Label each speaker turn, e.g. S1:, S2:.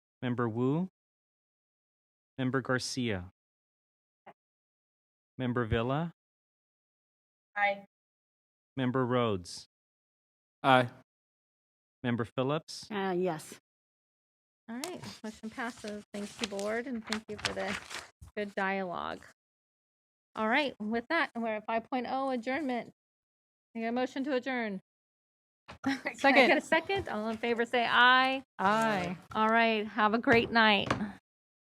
S1: Member Wu? Member Garcia? Member Villa?
S2: Aye.
S1: Member Rhodes?
S3: Aye.
S1: Member Phillips?
S4: Uh, yes.
S2: All right, motion passes. Thank you, board, and thank you for the good dialogue. All right, with that, we're at 5.0 adjournment. Need a motion to adjourn. Can I
S5: Second.
S2: Get a second? All in favor, say aye.
S5: Aye.
S2: All right, have a great night.